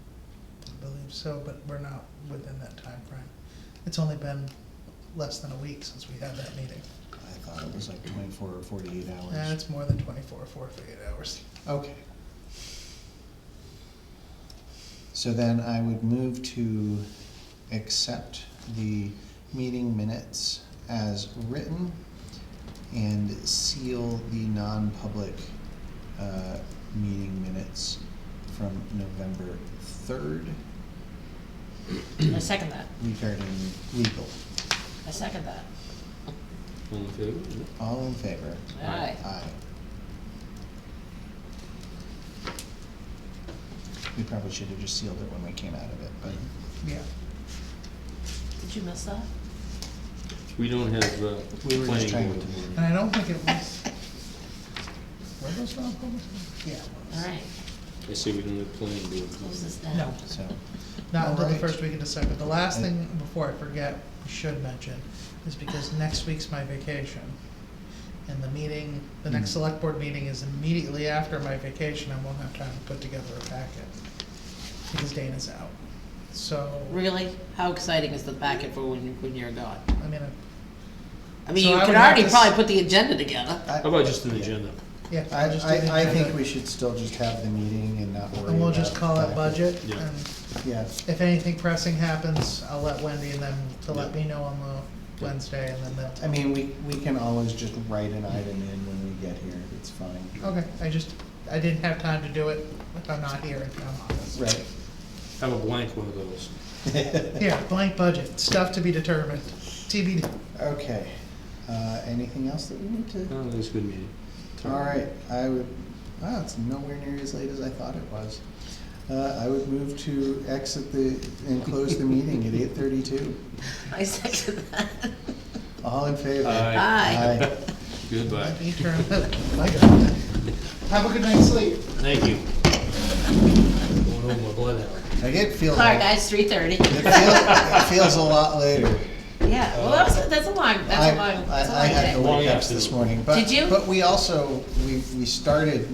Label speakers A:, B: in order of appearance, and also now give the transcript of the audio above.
A: so, but we're not within that time frame. It's only been less than a week since we had that meeting.
B: I thought it was like twenty-four or forty-eight hours.
A: Yeah, it's more than twenty-four, four, three, eight hours.
B: Okay. So then I would move to accept the meeting minutes as written and seal the non-public, uh, meeting minutes from November third
C: I second that,
B: regarding legal.
C: I second that.
D: All in favor?
B: All in favor?
C: Aye.
B: Aye. We probably should have just sealed it when we came out of it, but.
A: Yeah,
C: Did you miss that?
D: We don't have, uh,
B: We were just
D: planning
B: trying
D: board.
B: to-
A: and I don't think it was. Were those non-public? Yeah. it was.
C: All right,
D: I say we don't have planning board.
C: close this
A: No.
C: down.
B: So,
A: Not until the
B: Alright.
A: first week of December. The last
B: I-
A: thing, before I forget, we should mention, is because next week's my vacation. And the meeting, the next
B: Mm.
A: select board meeting is immediately after my vacation. I won't have time to put together a packet. Because Dana's out. So,
C: Really? How exciting is the packet for when, you- when you're gone?
A: I mean,
C: I mean,
A: So
C: you
A: I
C: could
A: would have
C: already
A: this-
C: probably put the agenda together.
B: I,
D: How about just an
B: Uh, Yeah.
D: agenda?
A: yeah.
B: I,
A: just do the
B: I, I think
A: agenda.
B: we should still just have the meeting and not worry about.
A: And we'll just call it
B: that.
A: budget.
D: Yeah.
A: And
B: Yeah,
A: if anything pressing happens, I'll let Wendy and them to let
D: Yeah.
A: me know on the Wednesday and then they'll.
B: I mean, we, we can always just write an item in when we get here, it's fine.
A: Okay, I just, I didn't have time to do it if I'm not here in town office.
B: Right.
D: Have a blank one of those.
A: Yeah, blank budget, stuff to be determined, TBD.
B: Okay, uh, anything else that we need to?
D: Oh, that was a good meeting.
B: All right, I would, wow, it's nowhere near as late as I thought it was. Uh, I would move to exit the, and close the meeting at eight thirty-two.
C: I second that.
B: All in favor?
D: Aye.
C: Aye.
B: Aye.
D: Goodbye.
A: Let me turn that- my God. Have a good night's sleep.
D: Thank you. Going over my blood hour.
B: I get feel.
C: All right,
B: like-
C: guys, three thirty.
B: It feels, it feels a lot later.
C: Yeah, well, that was, that's a long, that's a
B: I-
C: long,
B: I-
C: that's a
B: I
C: long
B: had
C: day.
B: to
D: Long
B: wake up
D: afternoon.
B: this morning, but.
C: Did you?
B: But we also, we, we started